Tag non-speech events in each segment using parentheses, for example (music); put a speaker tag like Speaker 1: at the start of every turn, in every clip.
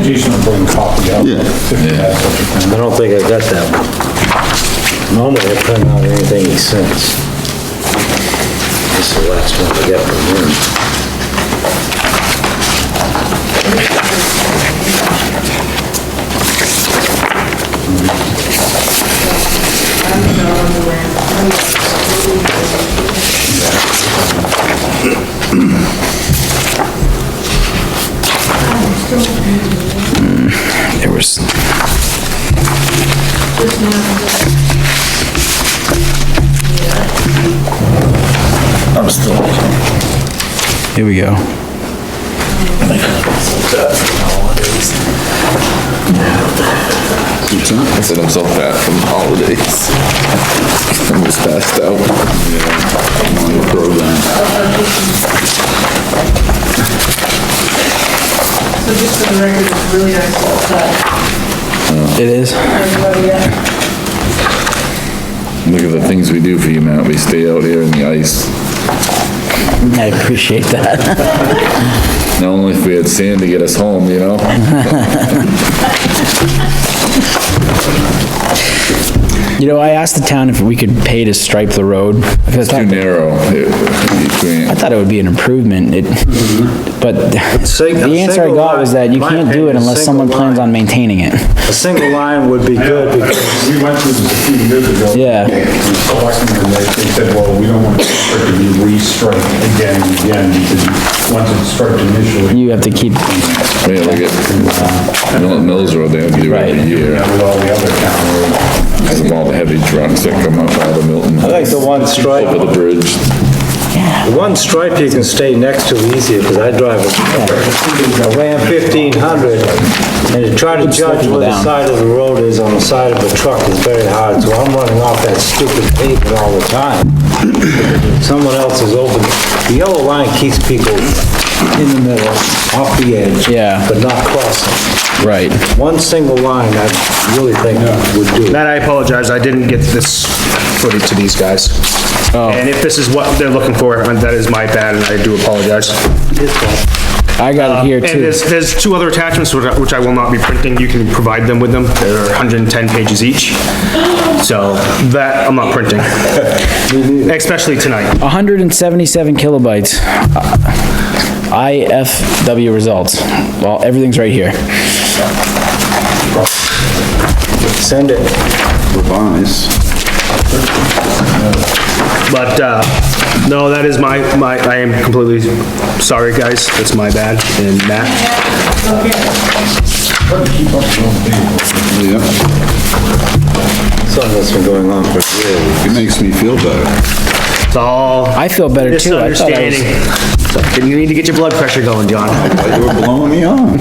Speaker 1: Jason will bring a copy up.
Speaker 2: Yeah.
Speaker 3: I don't think I got that one. Normally I print out anything he sends. This is the last one I got from him.
Speaker 4: There was,
Speaker 2: I'm still.
Speaker 4: here we go.
Speaker 2: I said I'm so fat from the holidays. I'm just passed out. Yeah. On the program.
Speaker 5: So just for the record, it's really nice to have
Speaker 4: It is?
Speaker 5: everybody at
Speaker 2: Look at the things we do for you, Matt. We stay out here in the ice.
Speaker 4: I appreciate that.
Speaker 2: Not only if we had sand to get us home, you know?
Speaker 4: You know, I asked the town if we could pay to stripe the road. because I
Speaker 2: Too
Speaker 4: thought-
Speaker 2: narrow. It- you
Speaker 4: I
Speaker 2: can't-
Speaker 4: thought it would be an improvement, it, but (laughs)
Speaker 3: sing-
Speaker 4: the answer I
Speaker 3: single
Speaker 4: got was
Speaker 3: line.
Speaker 4: that you
Speaker 3: My
Speaker 4: can't do it
Speaker 3: opinion,
Speaker 4: unless someone
Speaker 3: single
Speaker 4: plans
Speaker 3: line.
Speaker 4: on maintaining it.
Speaker 3: A single line would be good because
Speaker 1: We went through this a few years ago.
Speaker 4: Yeah.
Speaker 1: And selecting them, they they said, well, we don't want to strip it, you re-strike again and again, because once it's stripped initially,
Speaker 4: You have to keep,
Speaker 2: Yeah, look at, you know, Mills Road, they have to do it
Speaker 4: Right.
Speaker 2: every
Speaker 1: you
Speaker 2: year
Speaker 1: know, with all the other town roads.
Speaker 2: because of all the heavy trucks that come up out of Milton.
Speaker 3: I think the one
Speaker 2: Over
Speaker 3: stripe,
Speaker 2: the bridge.
Speaker 3: the one stripe you can stay next to easier because I drive a a Ram 1500 and to try to judge where the
Speaker 4: down.
Speaker 3: side of the road is on the side of a truck is very hard. So I'm running off that stupid pavement all the time. Someone else is over, the yellow line keeps people in the middle, off the edge.
Speaker 4: Yeah.
Speaker 3: But not crossing.
Speaker 4: right,
Speaker 3: One single line, I really think would do. it.
Speaker 6: Matt, I apologize, I didn't get this footage to these guys. And if this is what they're looking for, and that is my bad, and I do apologize.
Speaker 4: I
Speaker 3: Um,
Speaker 4: got it here
Speaker 6: And
Speaker 4: too.
Speaker 6: there's, there's two other attachments, which I- which I will not be printing, you can provide them with them, they're 110 pages (gasps) each. So, that, I'm not (laughs) printing. Especially tonight.
Speaker 4: hundred and seventy-seven kilobytes. Uh, IFW results, well, everything's right here.
Speaker 3: Send it.
Speaker 6: But, uh, no, that is my, my, I am completely sorry, guys, that's my bad, and Matt.
Speaker 2: Yeah,
Speaker 3: Something that's been going on for years.
Speaker 2: it makes me feel better.
Speaker 6: It's all
Speaker 4: I feel better too. I thought I was-
Speaker 6: misunderstanding. You need to get your blood pressure going, John.
Speaker 2: You were blowing me on.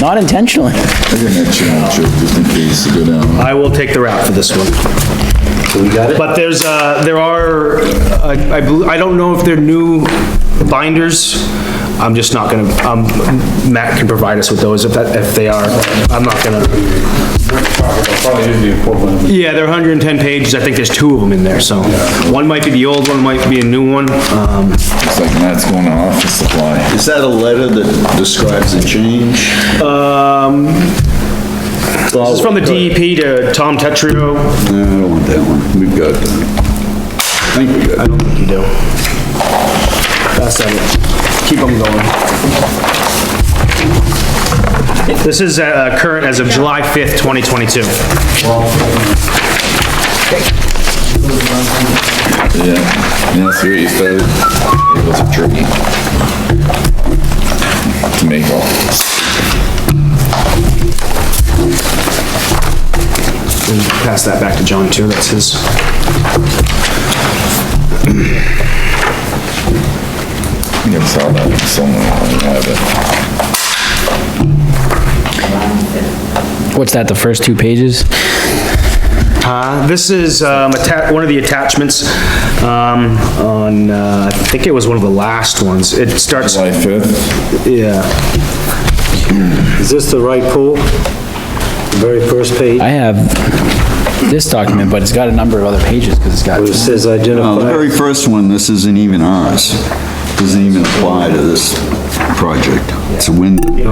Speaker 4: Not intentionally.
Speaker 2: I didn't have challenge it, just in case to go down.
Speaker 6: I will take the route for this one.
Speaker 3: We got it?
Speaker 6: But there's, uh, there are, I, I bel- I don't know if they're new binders. I'm just not gonna, um, Matt can provide us with those if that, if they are. I'm not gonna,
Speaker 1: Probably is the equivalent of
Speaker 6: yeah, they're 110 pages. I think there's two of them in there, so. One might be the old one, might be a new one. Um,
Speaker 2: It's like Matt's going to office supply.
Speaker 7: Is that a letter that describes the change?
Speaker 6: this is from the DEP to Tom Tetrio.
Speaker 7: No, I don't want that one. We've got that. I think we got it.
Speaker 6: You do. That's it. Keep them going. This is, uh, current as of July 5th, 2022.
Speaker 2: Yeah, yeah, see what you said. It was a tricky. To make all.
Speaker 6: And pass that back to John too, that's his.
Speaker 2: I think I saw that somewhere. I have it.
Speaker 4: What's that, the first two pages?
Speaker 6: Uh, this is, um, atta- one of the attachments, um, on, uh, I think it was one of the last ones. It starts,
Speaker 2: July fifth,
Speaker 6: yeah,
Speaker 3: Is this the right pool? The Very first page,
Speaker 4: I have this document, but it's got a number of other pages, because it's got,
Speaker 3: where it says
Speaker 7: No, the
Speaker 3: identify.
Speaker 7: very first one, this isn't even ours. Doesn't even apply to this project. It's a window.